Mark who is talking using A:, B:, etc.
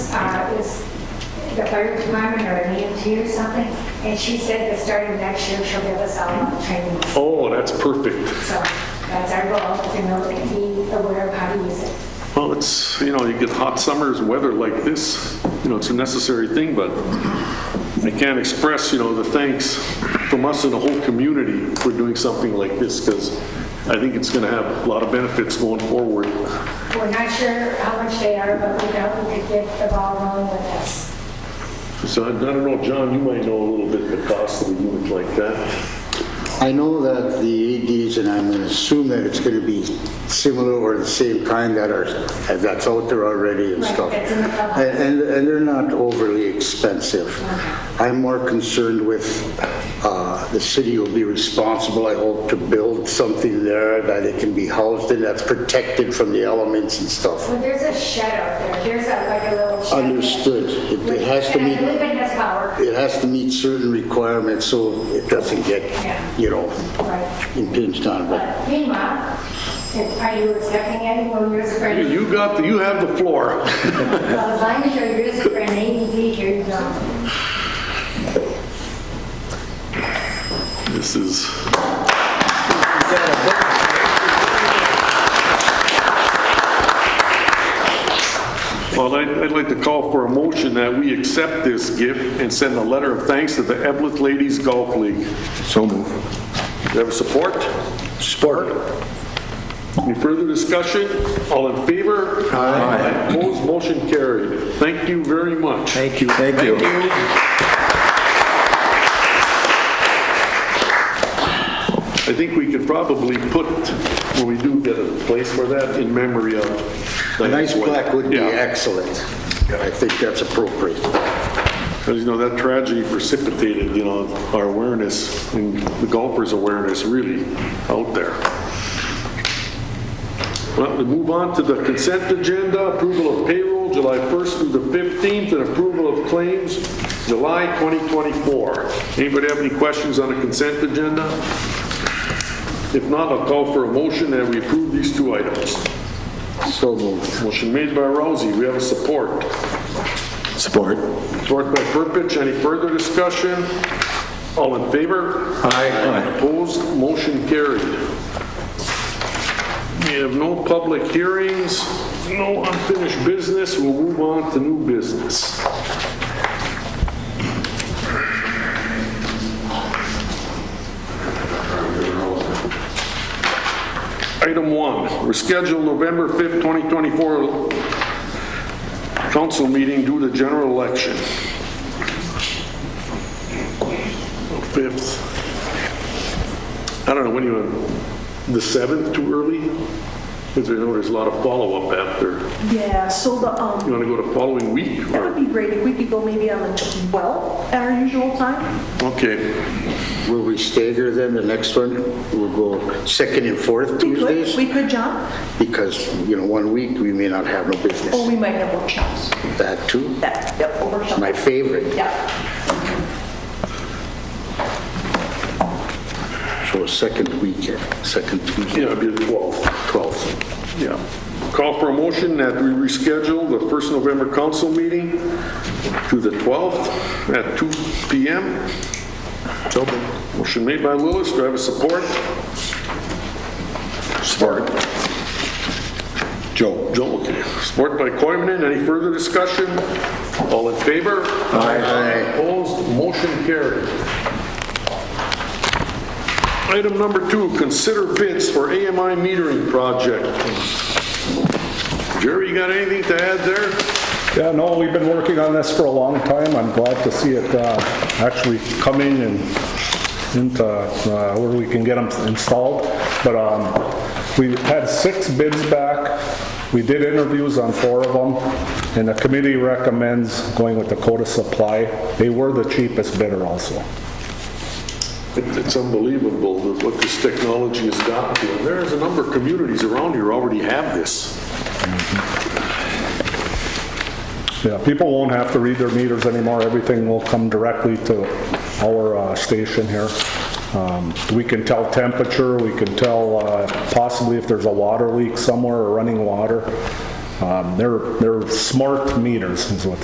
A: uh, the fire department or an EMT or something, and she said that starting next year, she'll give us all our training.
B: Oh, that's perfect.
A: So that's our goal, to know and be aware of how to use it.
B: Well, it's, you know, you get hot summers, weather like this, you know, it's a necessary thing, but I can't express, you know, the thanks from us and the whole community for doing something like this, because I think it's going to have a lot of benefits going forward.
A: We're not sure how much they are, but we know we could get the ball rolling with this.
B: So I don't know, John, you might know a little bit the cost of a unit like that.
C: I know that the ADs, and I'm going to assume that it's going to be similar or the same kind that are, that's out there already and
A: Right,
C: stuff.
A: that's in the public.
C: And, and- and they're not overly expensive. I'm more concerned with, uh, the city will be responsible, I hope, to build something there that it can be housed in, that's protected from the elements and stuff.
A: Well, there's a shed out there, there's a, like a little shed.
C: Understood. It- it has to meet-
A: And I believe it has power.
C: It has to meet certain requirements, so it doesn't get, you know,
A: Right.
C: impinged on, but
A: But meanwhile, if- are you accepting anyone who's afraid?
B: You got, the- you have the floor.
A: Well, as long as you're using for an ADD, here you go.
B: This is, well, I'd I'd like to call for a motion that we accept this gift and send a letter of thanks to the Evelyn Ladies Golf League.
D: So move.
B: Do you have a support? Support. Any further discussion? All in favor? Aye. Opposed, motion carried. Thank you very much.
D: Thank you. Thank you.
B: I think we could probably put, when we do get a place for that, in memory of.
C: A nice plaque would be
B: Yeah.
C: excellent. I think that's appropriate.
B: Because, you know, that tragedy precipitated, you know, our awareness, and the golfers' awareness really out there. Well, we move on to the consent agenda, approval of payroll July 1st through the 15th, and approval of claims July 2024. Anybody have any questions on the consent agenda? If not, I'll call for a motion that we approve these two items.
C: So moved.
B: Motion made by Rousey, we have a support.
D: Support.
B: Support by Purpich, any further discussion? All in favor?
D: Aye.
B: Opposed, motion carried. We have no public hearings, no unfinished business, we'll move on to new business. Item one, reschedule November 5th, 2024 council meeting due to general election. 5th. I don't know, when you, the 7th, too early? Because I know there's a lot of follow-up after.
E: Yeah, so the,
B: You
E: um,
B: want to go to following week?
E: that would
B: or-
E: be great if we could go maybe on the 12th at our usual time.
B: Okay,
C: Will we stagger then, the next one? We'll go second and fourth
E: We could,
C: Tuesdays?
E: we could, John,
C: Because, you know, one week, we may not have no
E: or
C: business.
E: we might have workshops.
C: That too,
E: That, yep, or workshops.
C: my favorite.
E: Yeah,
C: So second weekend, second Tuesday,
B: yeah, it'd be the 12th.
C: 12th.
B: Yeah. Call for a motion that we reschedule the first November council meeting to the 12th at 2 PM. So moved. Motion made by Lillis, do I have a support?
D: Support. Joe.
B: Joe, okay. Support by Coivinon, any further discussion? All in favor?
C: Aye.
B: Opposed, motion carried. Item number two, consider bids for AMI metering project. Jerry, you got anything to add there?
F: Yeah, no, we've been working on this for a long time. I'm glad to see it uh, actually coming and into uh, where we can get them installed. But um, we had six bids back. We did interviews on four of them, and the committee recommends going with Dakota Supply. They were the cheapest bidder also.
B: It- It's unbelievable that what this technology has gotten to. And There's a number of communities around here already have this.
F: Yeah, people won't have to read their meters anymore. Everything will come directly to our uh, station here. Um, We can tell temperature, we can tell uh, possibly if there's a water leak somewhere or running water. Um, They're, they're smart meters is what